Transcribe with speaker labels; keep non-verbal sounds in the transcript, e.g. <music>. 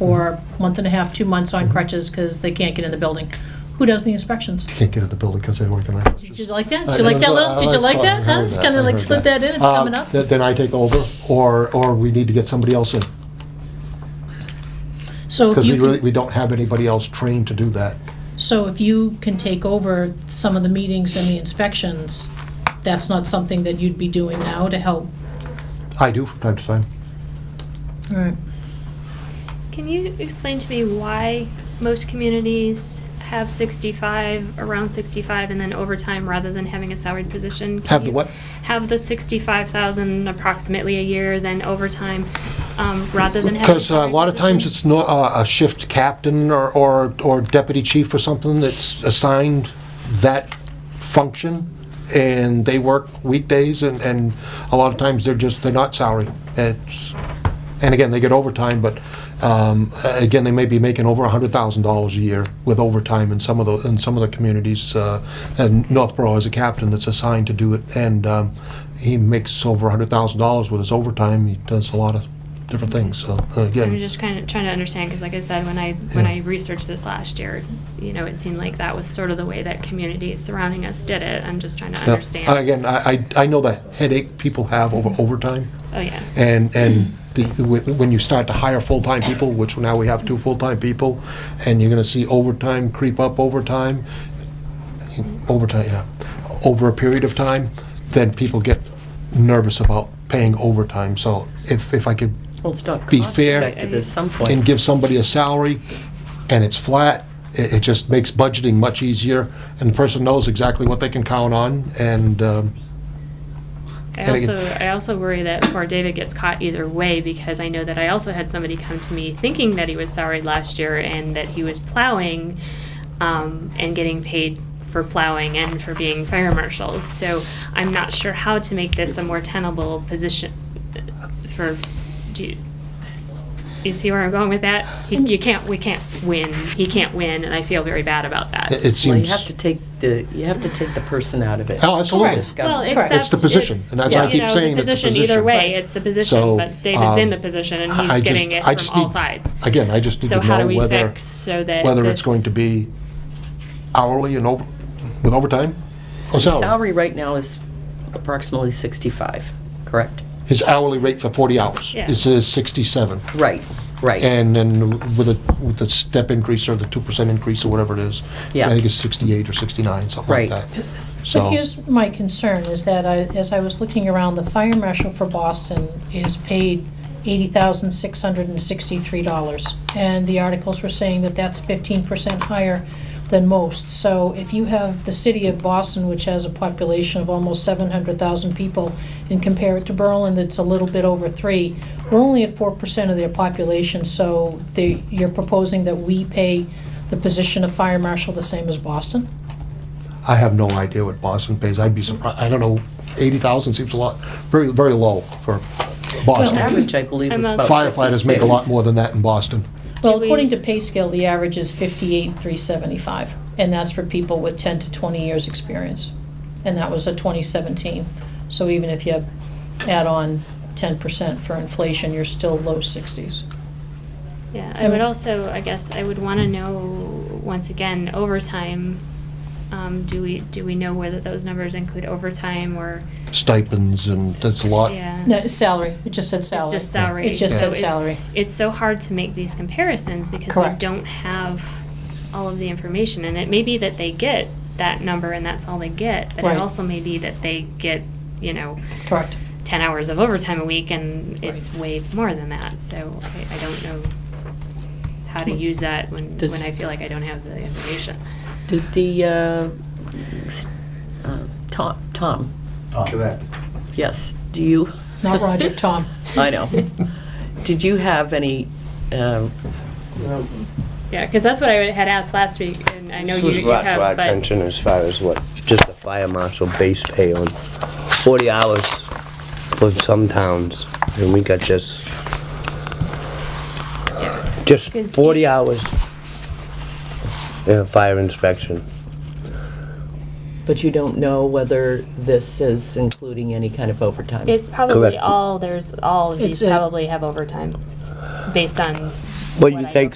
Speaker 1: for a month and a half, two months on crutches because they can't get in the building. Who does the inspections?
Speaker 2: Can't get at the building because they work on crutches.
Speaker 1: Did you like that? Did you like that little, did you like that? Huh? It's kind of like slid that in, it's coming up.
Speaker 2: Um, Then I take over, or, or we need to get somebody else in,
Speaker 1: So if
Speaker 2: because we
Speaker 1: you,
Speaker 2: really,
Speaker 1: can-
Speaker 2: we don't have anybody else trained to do that.
Speaker 1: so if you can take over some of the meetings and the inspections, that's not something that you'd be doing now to help?
Speaker 2: I do from time to time.
Speaker 1: All right.
Speaker 3: Can you explain to me why most communities have 65, around 65, and then overtime rather than having a salaried position? Can
Speaker 2: Have the
Speaker 3: you
Speaker 2: what?
Speaker 3: Have the 65,000 approximately a year, then overtime, um, rather than having.
Speaker 2: Because uh, a lot of times it's not, uh, a shift captain or, or or deputy chief or something that's assigned that function, and they work weekdays, and, and a lot of times they're just, they're not salary. It's, and again, they get overtime, but, um, a- again, they may be making over a hundred thousand dollars a year with overtime in some of the, in some of the communities. uh, And Northborough has a captain that's assigned to do it, and, um, he makes over a hundred thousand dollars with his overtime. He does a lot of different things, so, uh, again.
Speaker 3: I'm just kind of trying to understand, because like I said, when I, when I researched this last year, you know, it seemed like that was sort of the way that communities surrounding us did it. I'm just trying to
Speaker 2: Yeah.
Speaker 3: understand.
Speaker 2: And Again, I, I- I know the headache people have over overtime,
Speaker 3: Oh, yeah.
Speaker 2: and, and the, wh- when you start to hire full-time people, which now we have two full-time people, and you're gonna see overtime creep up overtime, overtime, yeah, over a period of time, then people get nervous about paying overtime, so if, if I could,
Speaker 4: Well, it's not
Speaker 2: Be
Speaker 4: cost
Speaker 2: fair.
Speaker 4: effective at some
Speaker 2: and
Speaker 4: point.
Speaker 2: give somebody a salary, and it's flat, it, it just makes budgeting much easier, and the person knows exactly what they can count on, and, um,
Speaker 3: I
Speaker 2: And again-
Speaker 3: also, I also worry that poor David gets caught either way because I know that I also had somebody come to me thinking that he was salaried last year and that he was plowing um, and getting paid for plowing and for being fire marshals. So I'm not sure how to make this a more tenable position for, do you, you see where I'm going with that? He, you can't, we can't win. He can't win, and I feel very bad about that.
Speaker 2: it it seems.
Speaker 4: Well, you have to take the, you have to take the person out of it.
Speaker 2: Oh, absolutely.
Speaker 1: Correct.
Speaker 3: Well,
Speaker 4: It's
Speaker 3: except
Speaker 2: the position,
Speaker 3: it's-
Speaker 2: and that's why I
Speaker 3: you
Speaker 2: keep
Speaker 3: know,
Speaker 2: saying
Speaker 3: the
Speaker 2: it's the
Speaker 3: position.
Speaker 2: position.
Speaker 3: Either way,
Speaker 1: Right.
Speaker 3: it's the position,
Speaker 2: So,
Speaker 3: but David's in
Speaker 2: um,
Speaker 3: the position and
Speaker 2: I-
Speaker 3: he's
Speaker 2: I
Speaker 3: getting
Speaker 2: just-
Speaker 3: it
Speaker 2: I
Speaker 3: from
Speaker 2: just
Speaker 3: all
Speaker 2: need-
Speaker 3: sides.
Speaker 2: Again, I just need
Speaker 3: So
Speaker 2: to
Speaker 3: how do
Speaker 2: know
Speaker 3: we
Speaker 2: whether,
Speaker 3: fix so that
Speaker 2: whether it's
Speaker 3: this-
Speaker 2: going to be hourly and over, with overtime? Or
Speaker 4: The
Speaker 2: salary?
Speaker 4: salary right now is approximately 65, correct?
Speaker 2: His hourly rate for 40 hours
Speaker 3: Yeah.
Speaker 2: is uh, 67.
Speaker 4: Right, right.
Speaker 2: And then with a, with the step increase or the 2% increase or whatever it is, I
Speaker 4: Yeah.
Speaker 2: think it's 68 or 69, something like
Speaker 4: Right.
Speaker 2: that.
Speaker 1: So
Speaker 2: So,
Speaker 1: here's my concern, is that I, as I was looking around, the fire marshal for Boston is paid eighty thousand six hundred and sixty-three dollars. And the articles were saying that that's fifteen percent higher than most. So if you have the city of Boston, which has a population of almost seven hundred thousand people, and compare it to Berlin, that's a little bit over three, we're only at four percent of their population, so they, you're proposing that we pay the position of fire marshal the same as Boston?
Speaker 2: I have no idea what Boston pays. I'd be surprised, I don't know, 80,000 seems a lot, very, very low for
Speaker 4: The
Speaker 2: Boston.
Speaker 4: Average, I believe, is
Speaker 3: I'm
Speaker 4: about
Speaker 3: a-
Speaker 2: Firefighters make a lot
Speaker 4: 56.
Speaker 2: more than that in Boston.
Speaker 1: Well,
Speaker 3: Do we-
Speaker 1: according to pay scale, the average is fifty-eight, three seventy-five, and that's for people with ten to twenty years' experience. And that was a twenty seventeen. So even if you add on ten percent for inflation, you're still low sixties.
Speaker 3: Yeah,
Speaker 1: I
Speaker 3: I would
Speaker 1: mean-
Speaker 3: also, I guess, I would want to know, once again, overtime. Um, do we, do we know whether those numbers include overtime or,
Speaker 2: Stipends and that's a lot.
Speaker 3: yeah?
Speaker 1: No, it's salary, it just said salary.
Speaker 3: Mm. It's just salary.
Speaker 1: It just
Speaker 3: So
Speaker 1: said
Speaker 3: it's-
Speaker 1: salary.
Speaker 3: It's so hard to make these comparisons because we
Speaker 1: Correct.
Speaker 3: don't have all of the information. And it may be that they get that number and that's all they get, but
Speaker 1: Right.
Speaker 3: it also may be that they get, you know,
Speaker 1: Correct.
Speaker 3: 10 hours of overtime a week and it's way more than that. So I, I don't know how to use that when, when
Speaker 4: Does-
Speaker 3: I feel like I don't have the information.
Speaker 4: Does the, uh, s- uh, Tom, Tom,
Speaker 5: Correct.
Speaker 4: yes, do you,
Speaker 1: Not
Speaker 3: <laughs>
Speaker 1: Roger, Tom.
Speaker 4: <laughs> I know. Did you have any, uh,
Speaker 3: Yeah, because that's what I had asked last week and I know
Speaker 5: This
Speaker 3: you,
Speaker 5: was
Speaker 3: you
Speaker 5: brought to our
Speaker 3: have, but
Speaker 5: attention as far as what, just the fire marshal base pay on 40 hours for some towns, and we got this, just
Speaker 3: Because
Speaker 5: 40 hours in a fire inspection.
Speaker 4: but you don't know whether this is including any kind of overtime?
Speaker 3: it's probably
Speaker 5: Correct.
Speaker 3: all, there's, all of
Speaker 1: It's
Speaker 3: these
Speaker 1: a-
Speaker 3: probably have overtime based on
Speaker 5: What you take